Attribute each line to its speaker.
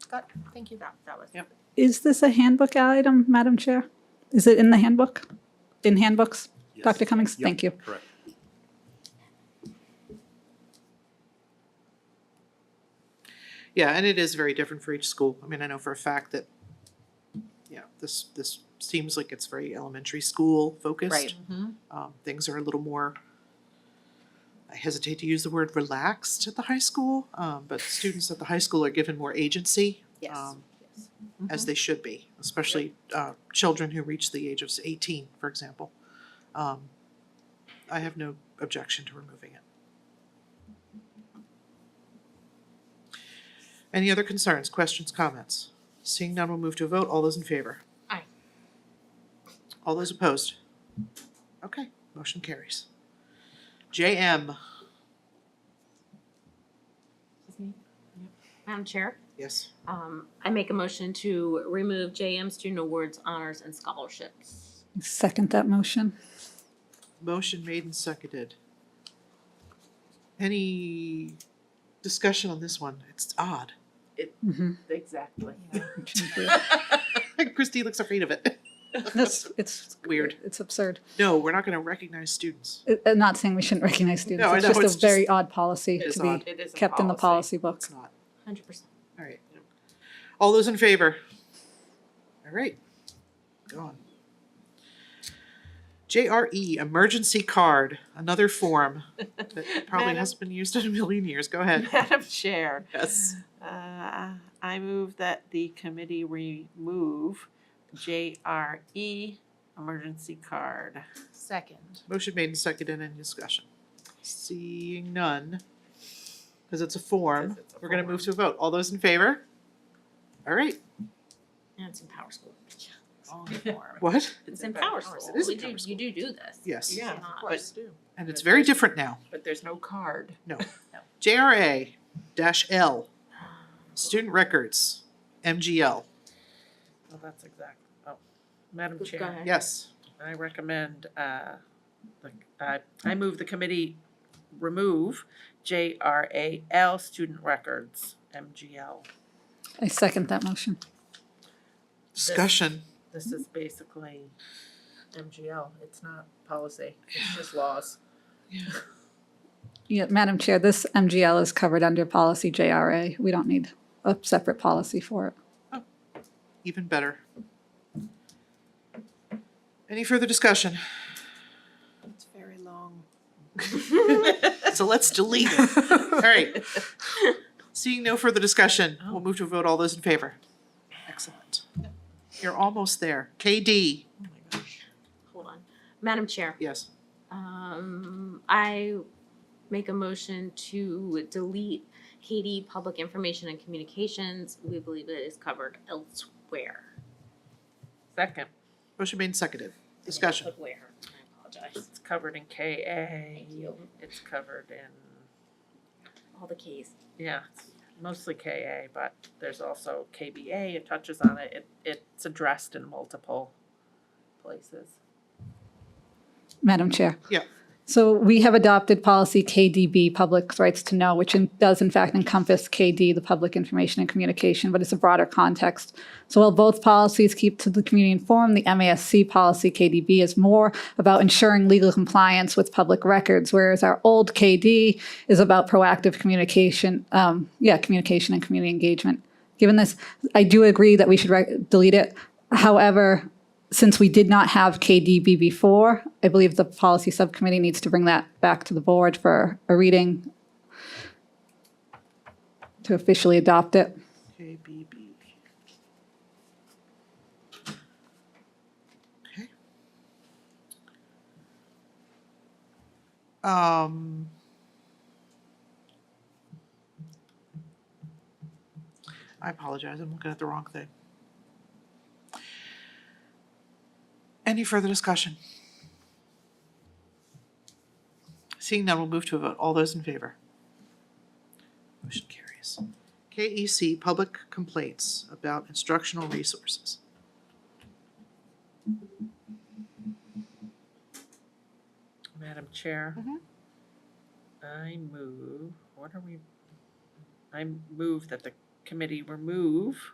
Speaker 1: Scott, thank you, that, that was.
Speaker 2: Yep.
Speaker 3: Is this a handbook item, Madam Chair? Is it in the handbook? In handbooks?
Speaker 4: Yes.
Speaker 3: Dr. Cummings,
Speaker 4: Yep,
Speaker 3: thank you.
Speaker 4: Correct.
Speaker 2: Yeah, and it is very different for each school. I mean, I know for a fact that, yeah, this, this seems like it's very elementary school focused.
Speaker 1: Right.
Speaker 2: Um, things are a little more, I hesitate to use the word relaxed at the high school, um, but students at the high school are given more agency.
Speaker 1: Yes.
Speaker 2: um,
Speaker 1: Yes.
Speaker 2: As they should be, especially, uh, children who reach the age of eighteen, for example. Um, I have no objection to removing it. Any other concerns, questions, comments? Seeing none, we'll move to a vote. All those in favor?
Speaker 1: Aye.
Speaker 2: All those opposed? Okay, motion carries. JM,
Speaker 5: Madam Chair,
Speaker 2: yes,
Speaker 5: um, I make a motion to remove JM Student Awards, Honors, and Scholarships.
Speaker 3: Second that motion.
Speaker 2: motion made and seconded. Any discussion on this one? It's odd.
Speaker 3: Mhm.
Speaker 1: Exactly.
Speaker 2: Christie looks afraid of it.
Speaker 3: It's, it's.
Speaker 2: Weird.
Speaker 3: It's absurd.
Speaker 2: No, we're not gonna recognize students.
Speaker 3: I- I'm not saying we shouldn't recognize students.
Speaker 2: No, I
Speaker 3: It's
Speaker 2: know,
Speaker 3: just
Speaker 2: it's
Speaker 3: a
Speaker 2: just-
Speaker 3: very odd policy
Speaker 2: It is
Speaker 3: to be
Speaker 2: odd.
Speaker 1: It is a
Speaker 3: kept in the policy book.
Speaker 2: It's not.
Speaker 5: Hundred percent.
Speaker 2: All right. All those in favor? All right. Go on. JRE, E, emergency card, another form that probably
Speaker 1: Madam-
Speaker 2: hasn't been used in a million years. Go ahead.
Speaker 1: Madam Chair,
Speaker 2: Yes.
Speaker 1: uh, I move that the committee remove JRE emergency card. Second.
Speaker 2: Motion made and seconded. Any discussion? Seeing none, because it's a form,
Speaker 1: Because it's a
Speaker 2: we're gonna move
Speaker 1: form.
Speaker 2: to a vote. All those in favor? All right.
Speaker 5: And it's in Power School.
Speaker 2: What?
Speaker 5: It's in Power School.
Speaker 2: It is
Speaker 5: We
Speaker 2: in
Speaker 5: do-
Speaker 2: Power School.
Speaker 5: You do do this.
Speaker 2: Yes.
Speaker 1: Yeah, of
Speaker 5: But-
Speaker 1: course.
Speaker 2: And it's very different now.
Speaker 1: But there's no card.
Speaker 2: JRA dash L,
Speaker 5: um,
Speaker 2: student records, MGL.
Speaker 6: Well, that's exact, oh, Madam
Speaker 5: Go
Speaker 6: Chair,
Speaker 5: ahead.
Speaker 2: Yes.
Speaker 6: I recommend, uh, the, I, I move the committee remove J R A L student records, M G L.
Speaker 3: I second that motion.
Speaker 2: Discussion.
Speaker 6: This is basically M G L, it's not policy, it's just laws.
Speaker 3: Yeah, Madam Chair, this MGL is covered under policy JRA. We don't need a separate policy for it.
Speaker 2: Even better. Any further discussion?
Speaker 1: It's very long.
Speaker 2: So let's delete it. All right. Seeing no further discussion, we'll move to a vote. All those in favor? Excellent. You're almost there. KD,
Speaker 1: Oh my gosh.
Speaker 5: Hold on. Madam Chair,
Speaker 2: yes.
Speaker 5: um, I make a motion to delete Katie Public Information and Communications. We believe it is covered elsewhere.
Speaker 6: Second,
Speaker 2: Motion made and seconded. Discussion.
Speaker 5: Where, I apologize.
Speaker 6: it's covered in K A,
Speaker 5: Thank you.
Speaker 6: it's covered in,
Speaker 5: All the keys.
Speaker 6: yeah, it's mostly K A, but there's also K B A, it touches on it, it, it's addressed in multiple places.
Speaker 3: Madam Chair.
Speaker 2: Yeah.
Speaker 3: So we have adopted policy KDB, public rights to know, which in- does in fact encompass KD, the public information and communication, but it's a broader context. So while both policies keep to the community informed, the MASC policy KDB is more about ensuring legal compliance with public records, whereas our old KD is about proactive communication, um, yeah, communication and community engagement. Given this, I do agree that we should re- delete it. However, since we did not have KDB before, I believe the policy subcommittee needs to bring that back to the board for a reading to officially adopt it.
Speaker 2: KBB. Okay. Um. I apologize, I'm looking at the wrong thing. Any further discussion? Seeing none, we'll move to a vote. All those in favor? Motion carries. KEC E Public Complaints about Instructional Resources.
Speaker 6: Madam Chair.
Speaker 2: Mhm.
Speaker 6: I move, what are we, I move that the committee remove